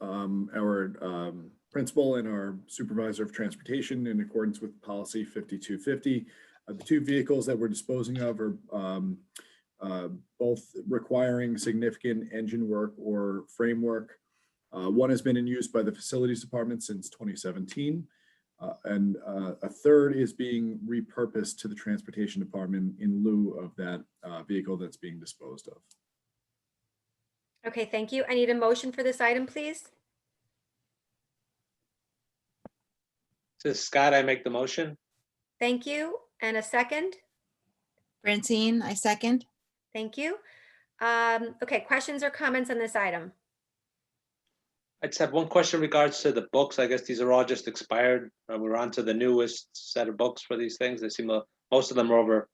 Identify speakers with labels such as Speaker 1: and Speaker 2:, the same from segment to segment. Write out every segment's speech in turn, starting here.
Speaker 1: um, our um, principal and our supervisor of transportation in accordance with policy 5250. Uh, The two vehicles that we're disposing of are um, uh, both requiring significant engine work or framework. Uh, One has been in use by the facilities department since 2017. uh, And uh, a third is being repurposed to the transportation department in lieu of that uh, vehicle that's being disposed of.
Speaker 2: Okay, thank you. I need a motion for this item, please.
Speaker 3: This is Scott, I make the motion.
Speaker 2: Thank you. And a second?
Speaker 4: Francine, I second.
Speaker 2: Thank you. Um, Okay, questions or comments on this item?
Speaker 3: I just have one question in regards to the books. I guess these are all just expired. Uh, We're on to the newest set of books for these things. They seem, uh, most of them are over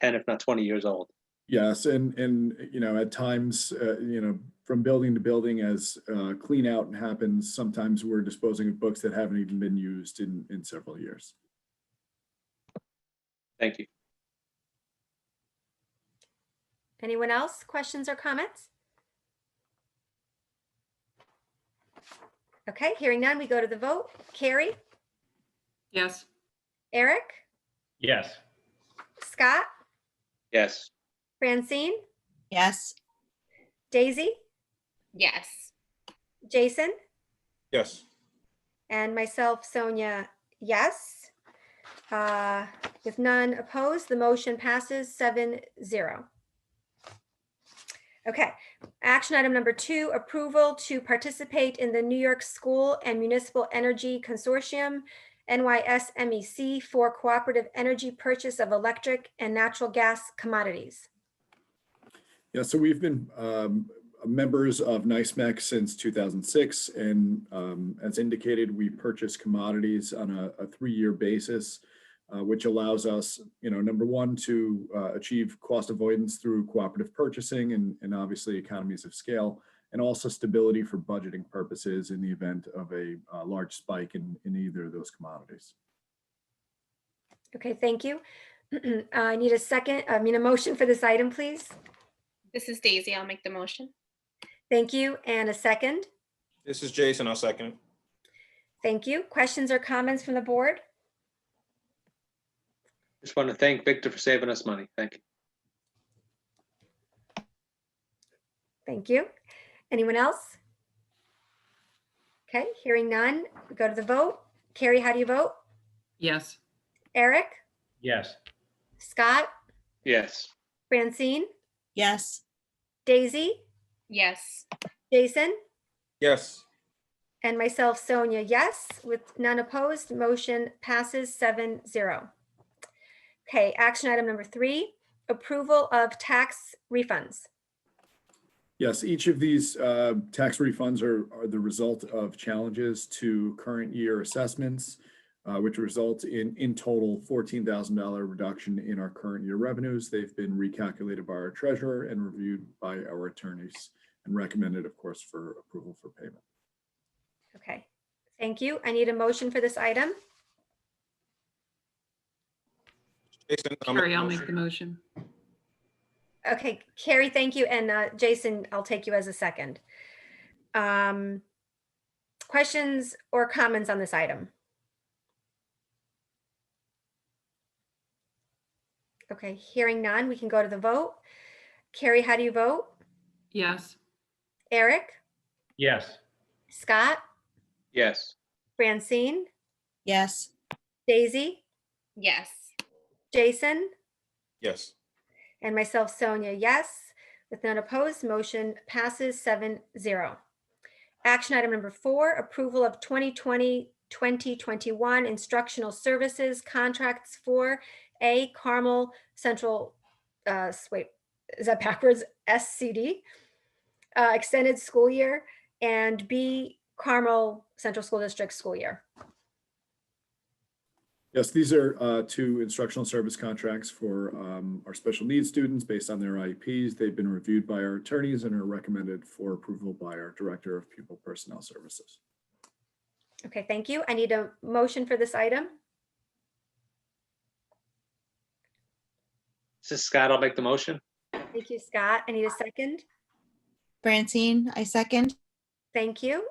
Speaker 3: ten, if not twenty years old.
Speaker 1: Yes, and, and, you know, at times, uh, you know, from building to building as, uh, clean out happens, sometimes we're disposing of books that haven't even been used in, in several years.
Speaker 3: Thank you.
Speaker 2: Anyone else? Questions or comments? Okay, hearing none, we go to the vote. Carrie,
Speaker 5: Yes.
Speaker 2: Eric,
Speaker 6: Yes.
Speaker 2: Scott,
Speaker 3: Yes,
Speaker 2: Francine,
Speaker 4: Yes,
Speaker 2: Daisy,
Speaker 5: Yes.
Speaker 2: Jason,
Speaker 7: Yes.
Speaker 2: and myself, Sonia, yes. Uh, With none opposed, the motion passes seven zero. Okay, action item number two, approval to participate in the New York School and Municipal Energy Consortium, NYSMEC, E for cooperative energy purchase of electric and natural gas commodities.
Speaker 1: Yeah, so we've been um, members of NICEMAC since 2006, and um, as indicated, we purchase commodities on a, a three-year basis, uh, which allows us, you know, number one, to uh, achieve cost avoidance through cooperative purchasing and, and obviously economies of scale, and also stability for budgeting purposes in the event of a uh, large spike in, in either of those commodities.
Speaker 2: Okay, thank you. Uh, I need a second, I mean, a motion for this item, please.
Speaker 5: This is Daisy. I'll make the motion.
Speaker 2: Thank you, and a second.
Speaker 7: This is Jason. I'll second. it.
Speaker 2: Thank you. Questions or comments from the board?
Speaker 3: just want to thank Victor for saving us money. Thank you.
Speaker 2: Thank you. Anyone else? Okay, hearing none, we go to the vote. Carrie, how do you vote?
Speaker 8: Yes,
Speaker 2: Eric,
Speaker 6: Yes.
Speaker 2: Scott,
Speaker 3: Yes,
Speaker 2: Francine,
Speaker 4: yes,
Speaker 2: Daisy,
Speaker 5: Yes.
Speaker 2: Jason,
Speaker 7: Yes.
Speaker 2: and myself, Sonia, yes, with none opposed, motion passes seven zero. Okay, action item number three, approval of tax refunds.
Speaker 1: Yes, each of these uh, tax refunds are, are the result of challenges to current year assessments, uh, which result in, in total $14,000 reduction in our current year revenues. They've been recalculated by our treasurer and reviewed by our attorneys and recommended, of course, for approval for payment.
Speaker 2: Okay, thank you. I need a motion for this item.
Speaker 7: Jason. I'll make
Speaker 8: Carrie,
Speaker 7: the
Speaker 8: I'll make the
Speaker 7: motion.
Speaker 8: motion.
Speaker 2: Okay, Carrie, thank you. And uh, Jason, I'll take you as a second. Um, Questions or comments on this item? Okay, hearing none, we can go to the vote. Carrie, how do you vote?
Speaker 8: Yes,
Speaker 2: Eric,
Speaker 6: Yes.
Speaker 2: Scott,
Speaker 3: yes,
Speaker 2: Francine,
Speaker 4: yes,
Speaker 2: Daisy,
Speaker 5: Yes.
Speaker 2: Jason,
Speaker 7: Yes.
Speaker 2: and myself, Sonia, yes. With none opposed, motion passes seven zero. Action item number four, approval of 2020, 2021 instructional services contracts for A Carmel Central, uh, s- wait, is that backwards? SCD, uh, extended school year, and B Carmel Central School District school year.
Speaker 1: Yes, these are uh, two instructional service contracts for um, our special needs students based on their IEPs. They've been reviewed by our attorneys and are recommended for approval by our Director of Pupil Personnel Services.
Speaker 2: Okay, thank you. I need a motion for this item.
Speaker 3: this is Scott, I'll make the motion.
Speaker 2: Thank you, Scott. I need a second.
Speaker 4: Francine, I second.
Speaker 2: Thank you.